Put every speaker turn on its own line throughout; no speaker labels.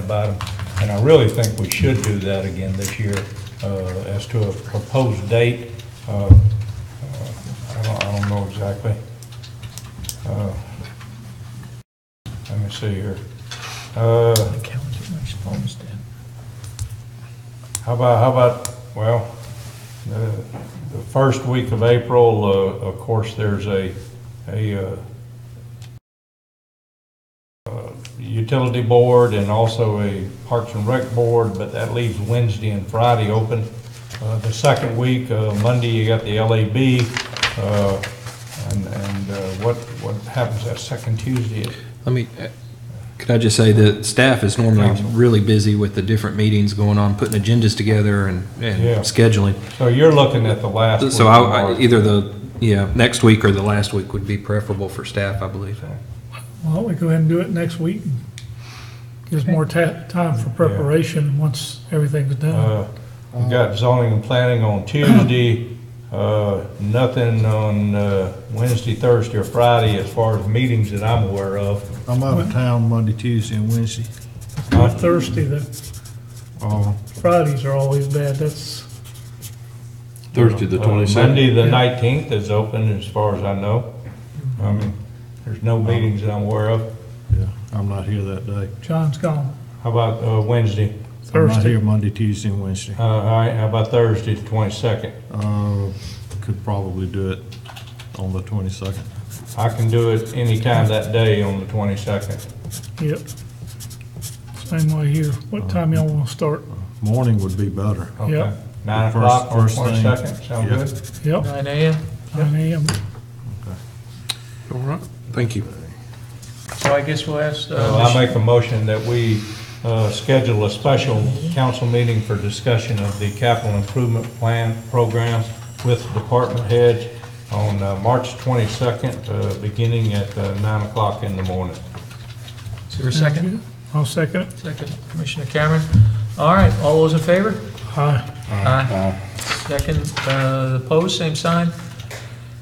about them. And I really think we should do that again this year uh, as to a proposed date. Uh, uh, I don't, I don't know exactly. Uh, Let me see here. Uh,
calendar, my phone's dead.
How about, how about, well, the, the first week of April, uh, of course, there's a, a, uh, uh, utility board and also a Parks and Rec board, but that leaves Wednesday and Friday open. Uh, the second week, uh, Monday, you got the LAB, uh, and, and, uh, what, what happens that second Tuesday?
Let me, uh, could I just say that staff is normally
Council.
really busy with the different meetings going on, putting agendas together and, and
Yeah.
scheduling.
So you're looking at the last. week
So
of
I, I-
March.
either the, yeah, next week or the last week would be preferable for staff, I believe.
Why don't we go ahead and do it next week? Gives more ta, time for preparation once everything's done.
Uh, We've got zoning and planning on Tuesday, uh, nothing on uh, Wednesday, Thursday, or Friday as far as meetings that I'm aware of.
I'm out of town Monday, Tuesday, and Wednesday.
I'm thirsty, the
Uh, Oh,
Fridays are always bad, that's,
Thursday, the
Uh,
22nd.
Monday, the
Yeah.
19th is open as far as I know. I mean, there's no meetings that I'm aware of.
yeah, I'm not here that day.
John's gone.
How about uh, Wednesday?
I'm not
Thursday.
here Monday, Tuesday, and Wednesday.
Uh, All right, how about Thursday, the 22nd?
Uh, could probably do it on the twenty-second.
I can do it anytime that day on the 22nd.
Yep. Same way here.
Uh,
What time y'all wanna start?
Morning would be better.
Okay.
Yeah.
Nine
First-
o'clock on
first thing.
22nd, sound
Yeah.
good?
Yep. Nine AM? Nine AM.
All right. Thank you.
So I guess we'll ask,
So
uh,
I make a motion that we uh, schedule a special council meeting for discussion of the capital improvement plan program with department heads on uh, March 22nd, uh, beginning at uh, 9 o'clock in the morning.
is there a second?
I'll second it.
Second, Commissioner Cameron. All right, all those in favor?
Aye.
Aye. Second, uh, opposed, same sign.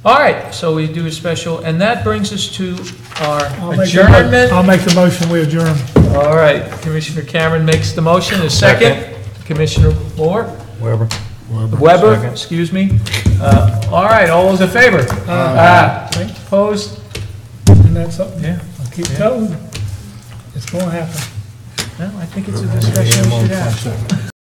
All right, so we do a special, and that brings us to
I'll
our
make the mo-
adjournment.
I'll make the motion, we adjourn.
All right, Commissioner Cameron makes the motion, a second. Commissioner Moore?
Weber?
Weber,
Second.
excuse me. Uh, All right, all those in favor? Aye. Opposed?
And that's up,
Yeah,
I keep telling you, it's gonna happen.
no, I think it's a discussion we should have.